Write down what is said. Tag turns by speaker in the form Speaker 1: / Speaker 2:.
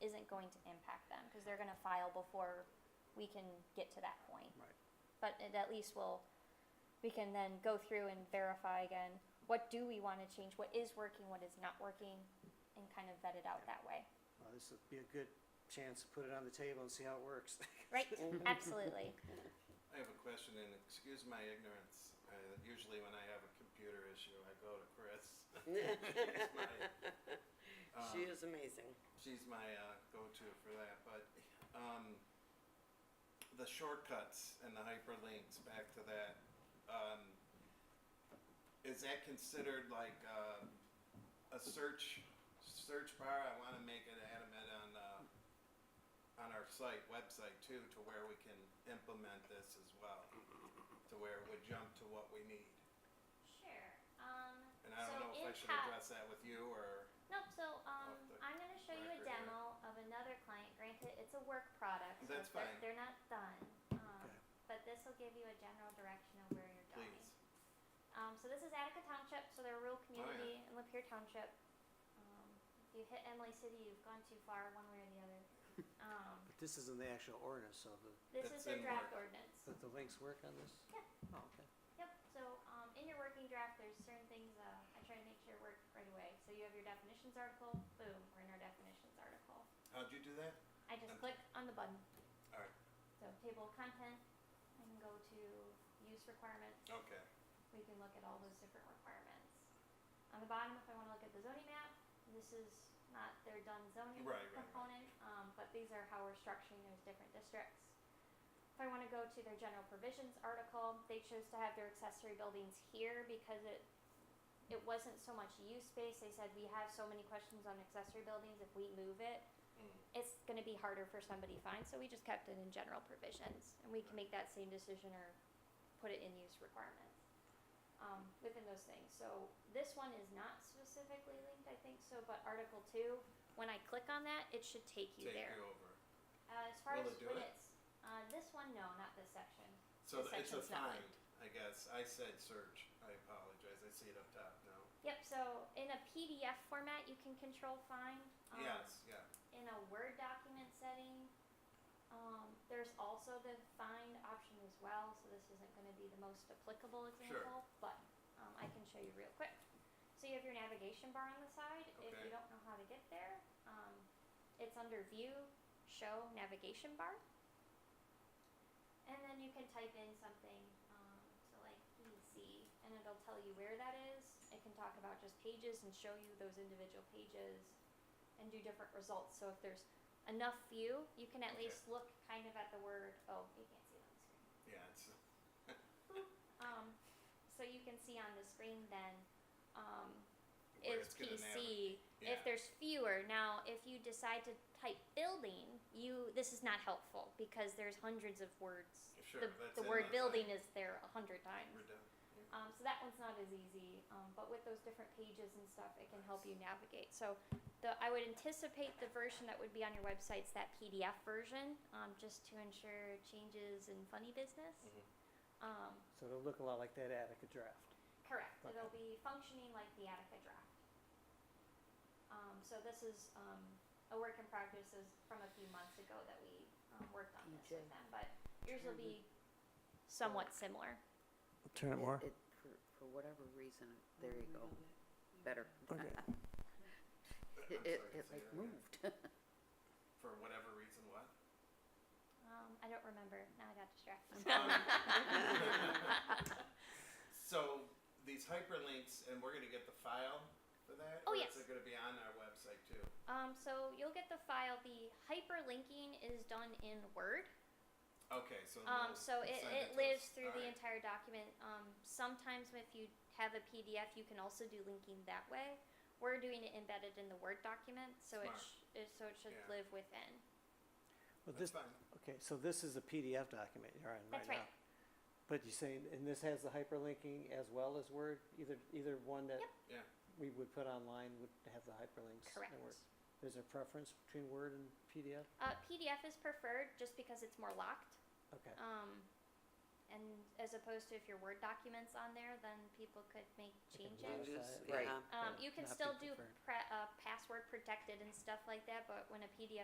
Speaker 1: going to impact them, because they're gonna file before we can get to that point.
Speaker 2: Right.
Speaker 1: But it at least will, we can then go through and verify again, what do we wanna change, what is working, what is not working, and kind of vet it out that way,
Speaker 2: Well, Oh, this would be a good chance to put it on the table and see how it works.
Speaker 1: right?
Speaker 3: Mm-hmm.
Speaker 1: Absolutely,
Speaker 4: I have a question, and excuse my ignorance. Uh, usually, when I have a computer issue, I go to Chris. She's my, um,
Speaker 3: She is amazing.
Speaker 4: she's my uh, go-to for that. But um, the shortcuts and the hyperlinks back to that um, is that considered like uh, a search search bar? I want to make it adamant on uh, on our site website too, to where we can implement this as well, to where it would jump to what we need.
Speaker 1: Sure, um,
Speaker 4: And I
Speaker 1: So
Speaker 4: don't know if I
Speaker 1: it
Speaker 4: should
Speaker 1: ha-
Speaker 4: address that with you or
Speaker 1: nope, so, um,
Speaker 4: the
Speaker 1: I'm gonna show you a
Speaker 4: record there.
Speaker 1: demo of another client, granted, it's a work product, so it's-
Speaker 4: That's
Speaker 1: they're-
Speaker 4: fine.
Speaker 1: they're not done. Um,
Speaker 2: Okay.
Speaker 1: but this will give you a general direction of where you're going.
Speaker 4: please.
Speaker 1: Um, so this is Attica Township, so they're a rural
Speaker 4: Oh, yeah.
Speaker 1: community in Lapeer Township. Um, if you hit Emily City, you've gone too far one way or the other. Um,
Speaker 2: But this isn't the actual ordinance, so the,
Speaker 1: this
Speaker 4: That's
Speaker 1: is their
Speaker 4: in
Speaker 1: draft
Speaker 4: work.
Speaker 1: ordinance.
Speaker 2: that the links work on this?
Speaker 1: Yeah.
Speaker 2: Oh, okay.
Speaker 1: Yep, so, um, in your working draft, there's certain things, uh, I try to make sure work right away. So you have your definitions article, boom, we're in our definitions article.
Speaker 4: How'd you do that?
Speaker 1: I just
Speaker 4: Okay.
Speaker 1: click on the button.
Speaker 4: All right.
Speaker 1: So table of content, I can go to use requirements.
Speaker 4: Okay.
Speaker 1: we can look at all those different requirements. On the bottom, if I wanna look at the zoning map, this is not their done zoning
Speaker 4: Right, right, right.
Speaker 1: component, um, but these are how we're structuring those different districts. If I wanna go to their general provisions article, they chose to have their accessory buildings here because it, it wasn't so much use space, they said we have so many questions on accessory buildings, if we move it,
Speaker 4: Mm.
Speaker 1: it's gonna be harder for somebody to find, so we just kept it in general provisions, and we can make that same decision or put it in use requirements. Um, within those things, so this one is not specifically linked, I think so, but Article two, when I click on that, it should take you
Speaker 4: Take
Speaker 1: there.
Speaker 4: you over.
Speaker 1: Uh, as far
Speaker 4: Will
Speaker 1: as
Speaker 4: it do
Speaker 1: when
Speaker 4: it?
Speaker 1: it's, uh, this one, no, not this section,
Speaker 4: So
Speaker 1: The
Speaker 4: th- it's a
Speaker 1: section's not
Speaker 4: find, I guess. I said search. I apologize. I see it up top now.
Speaker 1: yep, so in a PDF format, you can control find. um,
Speaker 4: Yes, yeah.
Speaker 1: in a Word document setting. Um, there's also the find option as well, so this isn't going to be the most applicable example, but um, I can show you real quick. So you have your navigation bar on the side. If you
Speaker 4: Okay.
Speaker 1: don't know how to get there, um, it's under View, Show, Navigation Bar. And then you can type in something, um, so like PC, and it'll tell you where that is. It can talk about just pages and show you those individual pages and do different results. So if there's enough view, you can at
Speaker 4: Okay.
Speaker 1: least look kind of at the word. Oh, you can't see it on the screen.
Speaker 4: Yeah, it's
Speaker 1: Um, so you can see on the screen then um,
Speaker 4: where
Speaker 1: is
Speaker 4: it's gonna navigate.
Speaker 1: PC.
Speaker 4: Yeah.
Speaker 1: If there's fewer now, if you decide to type building, you this is not helpful because there's hundreds of words.
Speaker 4: Sure,
Speaker 1: the
Speaker 4: that's
Speaker 1: the
Speaker 4: in
Speaker 1: word
Speaker 4: the
Speaker 1: building
Speaker 4: thing.
Speaker 1: is there a hundred times.
Speaker 4: We're done.
Speaker 1: Um, so that one's not as easy, um, but with those different pages and stuff, it can help you navigate. So the, I would anticipate the version that would be on your website's that PDF version, um, just to ensure changes and funny business.
Speaker 4: Mhm.
Speaker 1: Um,
Speaker 2: So it'll look a lot like that Attica draft.
Speaker 1: correct.
Speaker 2: Okay.
Speaker 1: It'll be functioning like the Attica draft. Um, so this is um, a work in progress is from a few months ago that we um, worked on this with
Speaker 3: PJ.
Speaker 1: them, but yours will
Speaker 3: Mhm.
Speaker 4: Mm-hmm.
Speaker 1: be somewhat similar.
Speaker 2: Turn
Speaker 3: It- it- For, for whatever reason, there you go, better.
Speaker 2: Okay.
Speaker 4: I'm sorry,
Speaker 3: It, it, it
Speaker 4: say that
Speaker 3: like
Speaker 4: again.
Speaker 3: moved.
Speaker 4: For whatever reason, what?
Speaker 1: Um, I don't remember. Now I got distracted.
Speaker 4: So these hyperlinks, and we're gonna get the file for that?
Speaker 1: Oh,
Speaker 4: or
Speaker 1: yes.
Speaker 4: Is it gonna be on our website too?
Speaker 1: Um, so you'll get the file. The hyperlinking is done in Word.
Speaker 4: Okay, so.
Speaker 1: Um,
Speaker 4: we'll
Speaker 1: so it,
Speaker 4: send
Speaker 1: it
Speaker 4: to us.
Speaker 1: lives through the
Speaker 4: Alright.
Speaker 1: entire document. Um, sometimes if you have a PDF, you can also do linking that way. We're doing it embedded in the Word document, so it,
Speaker 4: Smart.
Speaker 1: sh- it so it should live
Speaker 4: Yeah.
Speaker 1: within.
Speaker 2: Well, this,
Speaker 4: That's fine.
Speaker 2: okay, so this is a PDF document you're on
Speaker 1: That's
Speaker 2: right now.
Speaker 1: right.
Speaker 2: But you're saying, and this has the hyperlinking as well as Word, either, either one that
Speaker 1: Yep.
Speaker 4: Yeah.
Speaker 2: we would put online would have the hyperlinks
Speaker 1: Correct.
Speaker 2: in Word. Is there preference between Word and PDF?
Speaker 1: Uh, PDF is preferred just because it's more locked.
Speaker 2: Okay,
Speaker 1: Um, and as opposed to if your Word document's on there, then people could make
Speaker 2: They can
Speaker 1: changes.
Speaker 2: modify
Speaker 3: Changes,
Speaker 2: it.
Speaker 3: yeah.
Speaker 2: Right.
Speaker 1: Um,
Speaker 2: Right,
Speaker 1: you can
Speaker 2: not be
Speaker 1: still do
Speaker 2: preferred.
Speaker 1: pre- uh, password protected and stuff like that, but when a PDF